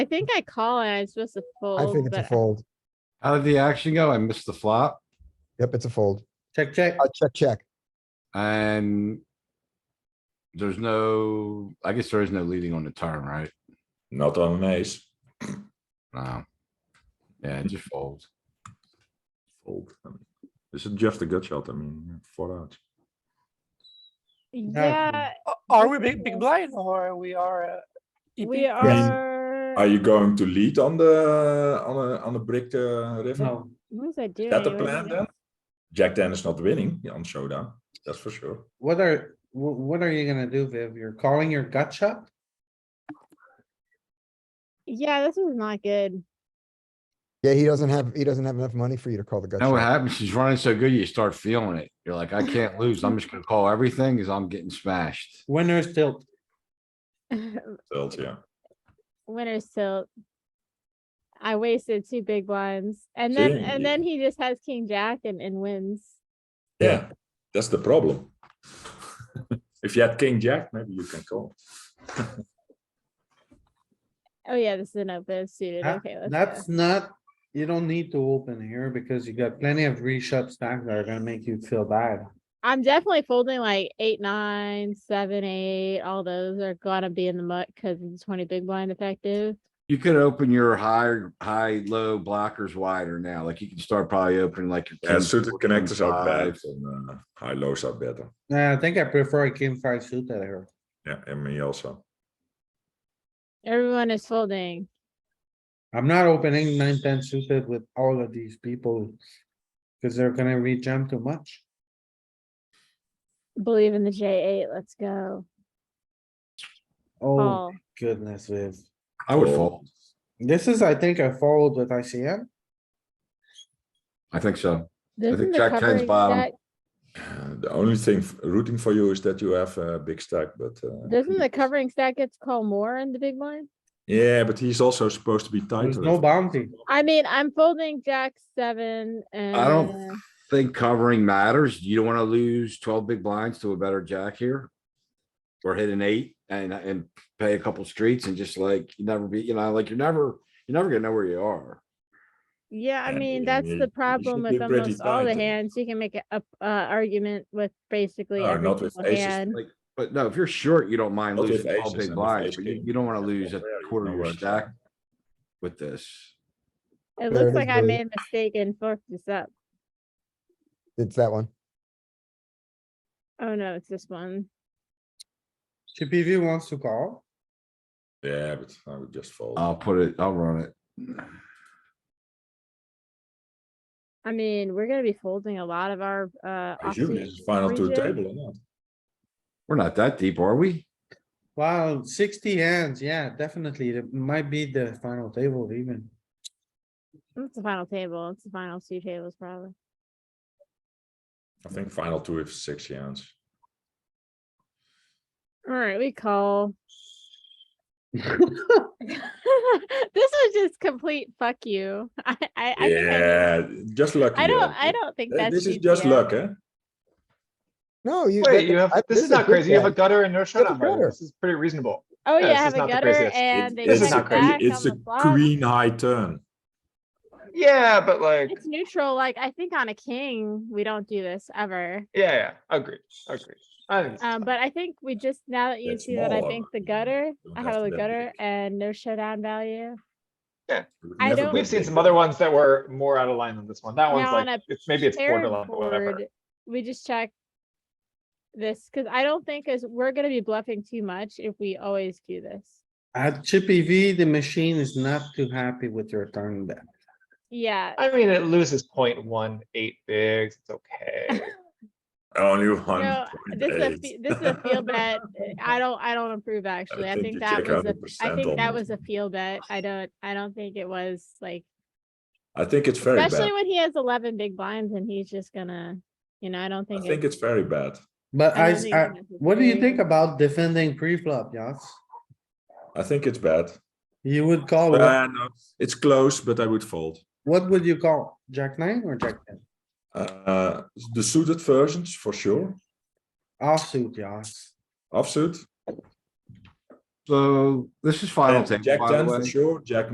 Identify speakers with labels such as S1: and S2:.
S1: I think I call and I'm supposed to
S2: I think
S1: fold,
S2: it's a
S1: but
S2: fold.
S3: How did the action go? I missed the flop
S2: Yep, it's a fold.
S4: Check, check.
S2: Uh, check, check.
S3: and there's no, I guess there is no leading on the turn, right?
S5: Not on an ace.
S3: No. Yeah, just fold.
S5: Fold. I mean, This is just a gut shot. I mean, four out.
S1: yeah,
S6: Are we big, big blind or we are? uh, EP?
S1: we are.
S5: Are you going to lead on the on a on a brick uh, river?
S4: No,
S1: What was I doing?
S5: Is that the
S1: What was I
S5: plan
S1: doing?
S5: then? Jack ten is not winning on showdown. That's for sure.
S4: what are, wh- what are you gonna do, Viv? You're calling your gut shot?
S1: Yeah, this was not good.
S2: Yeah, he doesn't have, he doesn't have enough money for you to call the gut
S3: Now what
S2: shot.
S3: happens? She's running so good, you start feeling it. You're like, I can't lose. I'm just gonna call everything because I'm getting smashed.
S4: Winner's tilt.
S5: Tilt, yeah.
S1: Winner's tilt. I wasted two big blinds and
S5: See?
S1: then, and then he just has king jack and, and wins.
S5: Yeah, that's the problem. if you had king jack, maybe you can call.
S1: Oh yeah, this is an open suited.
S4: That-
S1: Okay, let's go.
S4: That's not, you don't need to open here because you got plenty of reshut stacks that are gonna make you feel bad.
S1: I'm definitely folding like eight, nine, seven, eight. All those are gonna be in the muck because it's twenty big blind effective.
S3: You could open your higher, high, low blockers wider now. Like you can start probably opening like. your
S5: Yeah,
S3: king
S5: suited
S3: four, king
S5: connectors are bad
S3: five.
S5: and uh, high lows are better.
S4: Nah, I think I prefer a king five suited here.
S5: Yeah, and me also.
S1: Everyone is folding.
S4: I'm not opening nine, ten suited with all of these people. Cause they're gonna rejam too much.
S1: Believe in the J eight. Let's go.
S4: Oh
S1: Call.
S4: goodness, Viv.
S3: I would
S5: Fold.
S3: fold.
S4: This is, I think, I followed with ICM.
S3: I think so.
S1: This
S3: think
S1: is the
S3: Jack 10's
S1: covering
S3: bottom.
S1: Jack-
S5: Uh, the only thing f- rooting for you is that you have a big stack, but uh,
S1: Doesn't the covering stack gets called more in the big blind?
S5: yeah, but he's also supposed to be
S4: There's
S5: tighter.
S4: no
S5: if-
S4: bounty.
S1: I mean, I'm folding Jack seven and. uh,
S3: I don't think covering matters. You don't wanna lose twelve big blinds to a better jack here. Or hit an eight and, and pay a couple streets and just like, you never be, you know, like you're never, you're never gonna know where you are.
S1: Yeah, I
S5: And
S1: mean,
S5: you-
S1: that's
S5: you-
S1: the
S5: you
S1: problem
S5: should
S1: with
S5: be pretty
S1: almost all the
S5: tight.
S1: hands. You can make a, up- uh, argument with basically
S5: No,
S1: every
S5: Oh, not with
S1: single
S5: aces,
S1: hand.
S3: Like, but no, if you're short, you don't mind
S5: Not with
S3: losing twelve
S5: aces and
S3: big
S5: with
S3: blinds, but you,
S5: ace-king.
S3: you don't wanna
S5: That's
S3: lose
S5: not
S3: a
S5: fair, you
S3: quarter
S5: know
S3: of your
S5: where it's
S3: stack
S5: at.
S3: with this.
S1: It
S2: There
S1: looks
S2: it
S1: like I
S2: is, Billy.
S1: made a mistake and fucked this up.
S2: It's that one.
S1: Oh no, it's this one.
S4: CPV wants to call.
S5: Yeah, but I would just fold.
S3: I'll put it, I'll run it.
S1: I mean, we're gonna be folding a lot of our, uh.
S5: I assume
S1: offsuit
S5: this is final two
S1: ranges.
S5: table or not?
S3: We're not that deep, are we?
S4: Wow, sixty hands, yeah, definitely, it might be the final table even.
S1: It's the final table. It's the final two tables probably.
S5: I think final two is six hands.
S1: Alright, we call. This was just complete fuck you. I, I, I think I-
S5: Yeah, just lucky.
S1: I don't,
S5: uh,
S1: I don't think
S5: uh,
S1: that's.
S5: This is just
S1: GTO.
S5: luck, eh?
S2: No, you.
S6: Wait, you have,
S2: I-
S6: this is not
S2: good
S6: crazy. You have a
S2: stack.
S6: gutter and no
S2: a
S6: showdown,
S2: gutter.
S6: right? This is pretty reasonable.
S1: Oh
S6: Yeah,
S1: yeah,
S6: this
S1: have
S6: is
S1: a
S6: not the
S1: gutter
S6: craziest. It-
S1: and they
S6: this is
S1: check
S6: not crazy.
S1: back
S5: que- It's
S1: on
S5: a
S1: the flop.
S5: queen high turn.
S6: Yeah, but like,
S1: It's neutral. Like I think on a king, we don't do this ever.
S6: yeah, yeah, agreed, agreed. I think it's
S1: Um,
S6: fine.
S1: but I think we just, now that you
S5: That's
S1: see that, I
S5: small,
S1: think the
S5: you
S1: gutter,
S5: don't
S1: I
S5: have
S1: have
S5: to
S1: a
S5: bet
S1: gutter
S5: big.
S1: and no showdown value.
S5: You would
S1: I
S5: never
S1: don't-
S5: bet
S6: We've seen
S5: big.
S6: some other ones that were more out of line than this one. That one's
S1: Now on
S6: like,
S1: a
S6: it's, maybe it's
S1: Paired
S6: borderline, but whatever.
S1: board, We just check this, cause I don't think is, we're gonna be bluffing too much if we always do this.
S4: At Chippy V, the machine is not too happy with your turn bet.
S1: Yeah,
S6: I mean, it loses point one eight bigs. It's okay.
S5: Only one.
S1: no,
S5: point
S1: this is a,
S5: eight.
S1: fe- this is a field bet. Eh, I don't, I don't approve actually. I
S5: think
S1: think
S5: you
S1: that
S5: check
S1: was, a. I
S5: 100%
S1: think that
S5: on
S1: was
S5: this
S1: a field bet. I don't, I don't think it was like
S5: I think it's very bad.
S1: Especially when he has eleven big blinds and he's just gonna, you know, I don't
S5: I
S1: think.
S5: think it's very bad.
S4: But
S1: I
S4: I,
S1: don't think
S4: I-
S1: it's
S4: what do you
S1: necessary.
S4: think about defending pre-flop, Yas?
S5: I think it's bad.
S4: You would call, what,
S5: Uh, no, it's close, but I would fold.
S4: what would you call? Jack nine or jack ten?
S5: Uh, the suited versions for sure.
S4: Offsuit, Yas.
S5: Offsuit.
S3: so this is final
S5: And
S3: table,
S5: Jack
S3: by the
S5: ten for
S3: way.
S5: sure, Jack